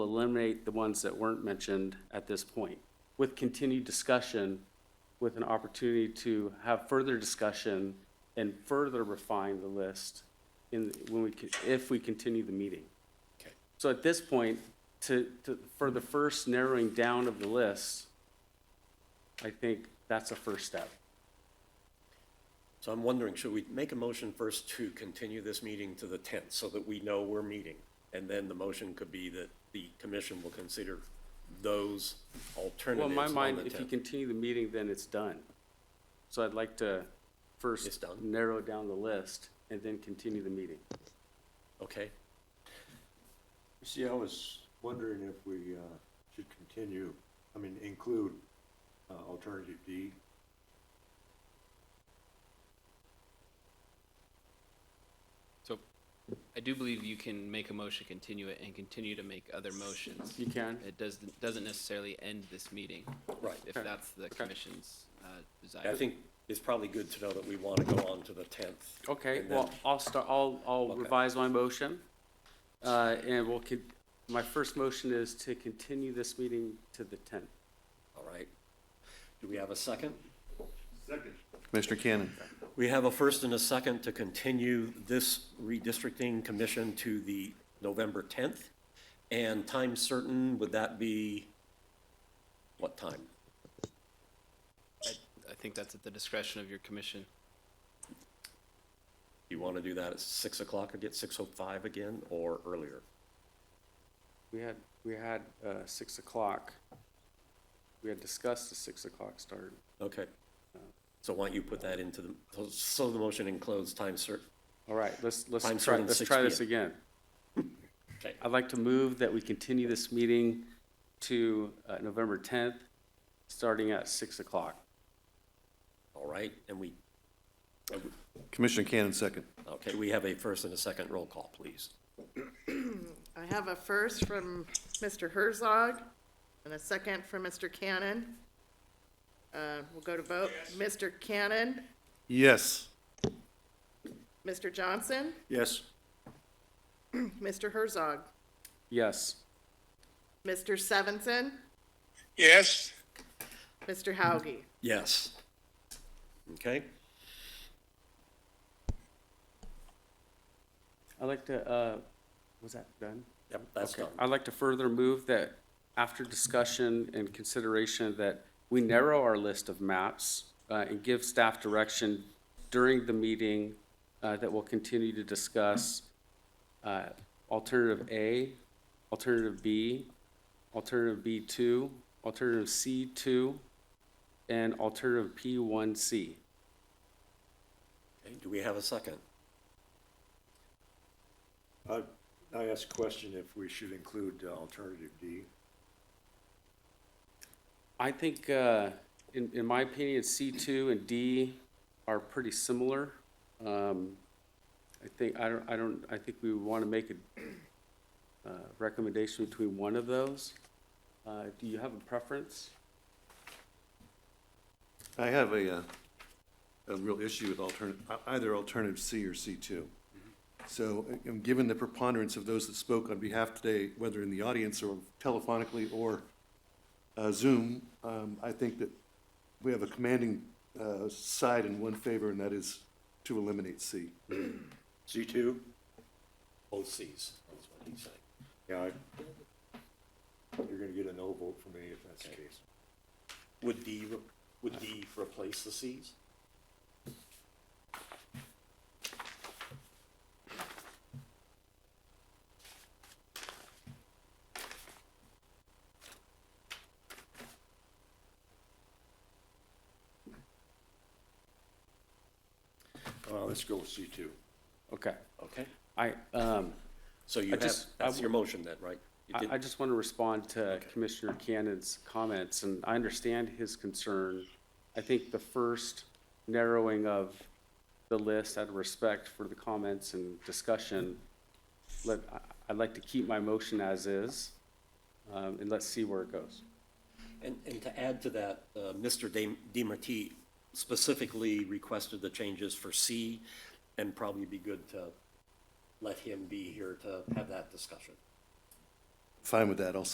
eliminate the ones that weren't mentioned at this point, with continued discussion, with an opportunity to have further discussion and further refine the list in, when we, co- if we continue the meeting. Okay. So at this point, to, to, for the first narrowing down of the list, I think that's a first step. So I'm wondering, should we make a motion first to continue this meeting to the tenth so that we know we're meeting? And then the motion could be that the commission will consider those Well, in alternatives my on mind, the if you tenth. continue the meeting, then it's done. So I'd like to It's first done? narrow down the list and then continue the meeting. Okay, See, I was wondering if we uh, should continue, I mean, include uh, alternative D. So I do believe you can make a motion, continue it, and continue to make other motions. You can? It doesn't, doesn't necessarily end this meeting, right. if Okay. that's the commission's uh, I desire. think it's probably good to know that we want to go on to the tenth. Okay, And then- well, I'll start, I'll, I'll Okay. revise my motion. Uh, and we'll, con- my first motion is to continue this meeting to the tenth. All right. Do we have a second? Commissioner Cannon. We have a first and a second to continue this redistricting commission to the November 10th. And time certain, would that be what time? I think that's at the discretion of your commission. You want to do that at 6 o'clock again, 6:05 again, or earlier? We had, we had, uh, six o'clock. We had discussed the six o'clock start. Okay. So why don't you put that into the, so- so the motion includes time cer, All right, let's, let's Time try, starting let's 6 try this PM. again. Okay. I'd like to move that we continue this meeting to uh, November 10th, starting at 6 o'clock. all right? And we, Commissioner Cannon, second. okay, we have a first and a second roll call, please. I have a first from Mr. Herzog and a second from Mr. Cannon. Uh, We'll go to vote. Mr. Cannon, Yes. Mr. Johnson, Yes. Mr. Herzog, Yes. Mr. Sevenson, Yes, Mr. Hauge. Yes. Okay? I'd like to, uh, was that done? Yep, that's Okay. done. I'd like to further move that after discussion and consideration that we narrow our list of maps uh, and give staff direction during the meeting uh, that we'll continue to discuss uh, alternative A, alternative B, alternative B2, alternative C2, and alternative P1C. Okay, Do we have a second? I I asked a question if we should include uh, alternative D. I think, uh, in, in my opinion, C2 and D are pretty similar. Um, I think, I don't, I don't, I think we would want to make a uh, recommendation between one of those. Uh, Do you have a preference? I have a, uh, a real issue with alternate, either alternative C or C2. So, uh, um, given the preponderance of those that spoke on behalf today, whether in the audience or telephonically or uh, Zoom, um, I think that we have a commanding uh, side in one favor, and that is to eliminate C. C two? Both Cs, is what he's saying. Yeah. I- You're gonna get a no vote from me if that's the Okay. case. Would D, re- would D replace the Cs? Uh, Let's go with C two. Okay, Okay, I, um, so you I have, just- I that's w- your motion then, right? You I, did- I just want to respond to Commissioner Cannon's comments, and I understand his concern. I think the first narrowing of the list out of respect for the comments and discussion, let, I, I'd like to keep my motion as is, um, and let's see where it goes. And, and to add to that, uh, Mr. De- DeMartini specifically requested the changes for C, and probably be good to let him be here to have that discussion. fine with that, I'll